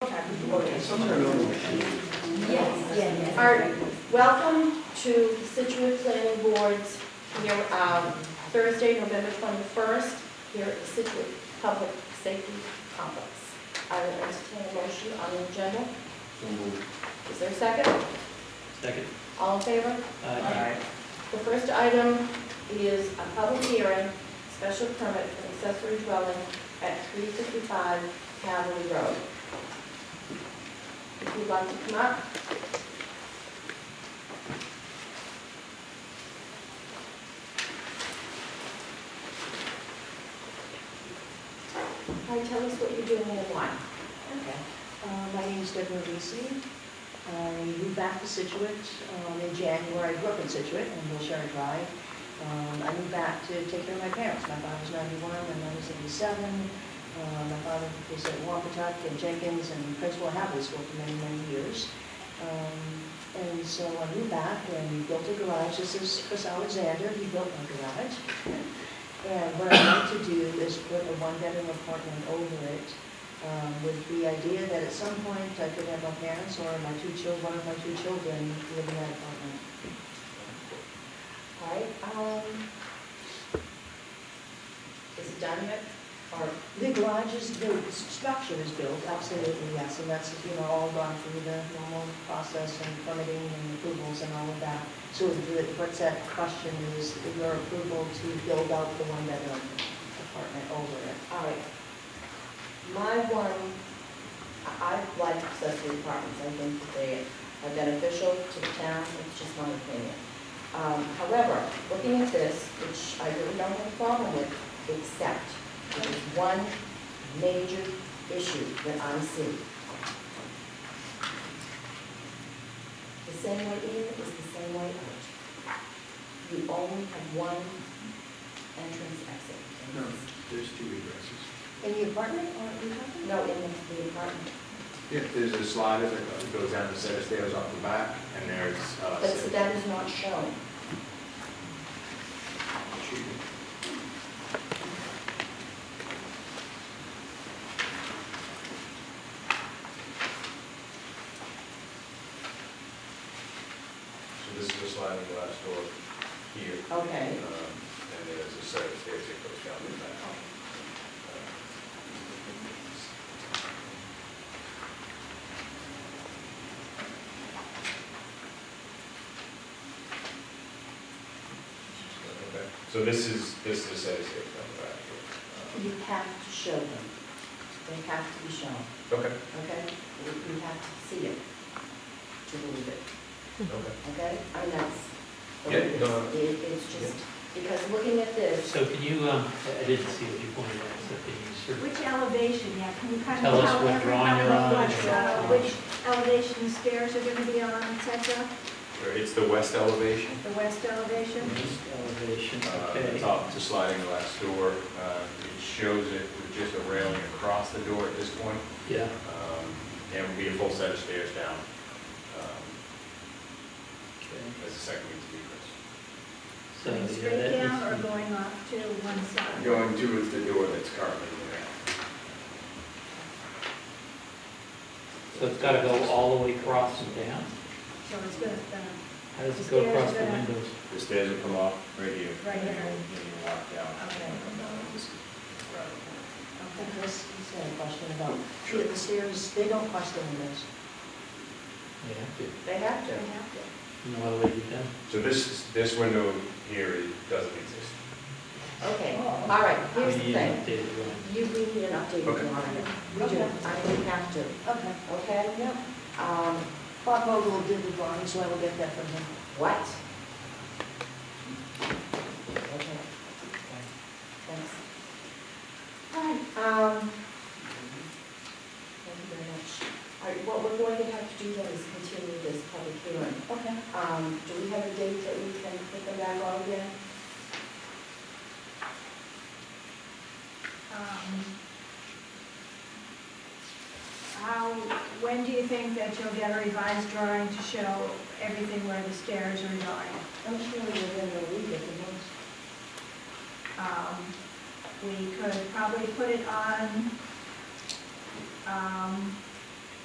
Yes, yes. Our, welcome to Situate Planning Board's, here, um, Thursday, November 21st, here at the Situate Public Safety Complex. I will entertain a motion on the agenda. Is there a second? Second. Uh, All in favor? Aye. The first item is a public hearing, special permit for accessory dwelling at 355 Cavalry Road. If you'd like to come up. Hi, tell us what you're doing and why. Okay. Uh, My name is Deborah Lisi. I moved back to Situate um, in January. I grew up in Situate on Wilshire Drive. Um, I moved back to take care of my parents. My father was 91, my mother was 87. Uh, My father was at Wampatuck and Jenkins and Principal Hadley School for many, many years. Um, And so I moved back and we built a garage. This is Chris Alexander, he built my garage. And what I want to do is put a one-bedroom apartment over it um, with the idea that at some point I could have my parents or my two children, one of my two children live in that apartment. All right, um, is it done yet? Or, The garage is built, the structure is built, absolutely, yes, and that's, you know, all gone through the normal process and permitting and approvals and all of that. So the- what's that question is your approval to build out the one-bedroom apartment over it. all right. My one, I I like accessory apartments, I think that they are beneficial to the town, it's just my opinion. Um, however, looking at this, which I really don't have a problem with, except there's one major issue that I'm seeing. The same way in is the same way out. You only have one entrance exit. No, there's two egresses. In the apartment, aren't we talking? No, in the the apartment. Yeah, there's a slider that goes down the set of stairs off the back, and there's, uh, But so that is not shown. So this is a sliding glass door here. Okay. um, And there's a set of stairs that goes down the back. Okay. So this is, this is a set of stairs down the back here. You have to show them. They have to be shown, Um, Okay, okay? You you have to see it to believe it, okay. okay? I mean, that's. Yeah, no. It- It's just, because looking at this, So can you, um, I I didn't see what you pointed out, so can you sort of, Which elevation, yeah, can you kind of Tell tell us what drawing everyone you're on. what, uh, which elevation the stairs are gonna be on, et cetera? Or It's the west elevation. The west elevation? East elevation, Uh, okay. the Top, it's a sliding glass door. Uh, It shows it with just a railing across the door at this point. Yeah, Um, And would be a full set of stairs down. um, okay. That's the second means of egress. So, yeah, Going that straight down or is- going off to one side? Going to is the door that's currently there. So it's gotta go all the way across and down? So it's gonna, uh, How does it go across the windows? The stairs will come off right here. Right here. And you walk down. Okay. Come down, this is right. I think Chris, he's had a question about, Yeah, the stairs, they don't cross the windows. Yeah, okay. they have to. they have to- no other way to do that. So this, this window here is- doesn't exist. Okay, all right, here's We the need an thing. updated drawing. You, we need an update Okay. on it. We do, I mean, we have to, Okay. okay? Yeah. Um, Bob Vogel did the drawing, so I will get that from him. What? Okay. Thanks. Hi, um, thank you very much. All right, what we're going to have to do then is continue this public hearing. Okay. Um, do we have a date that we can put them back on again? um, How, when do you think that you'll get a revised drawing to show everything where the stairs are going? I'm sure we're going to leave it the most. Um, We could probably put it on, um,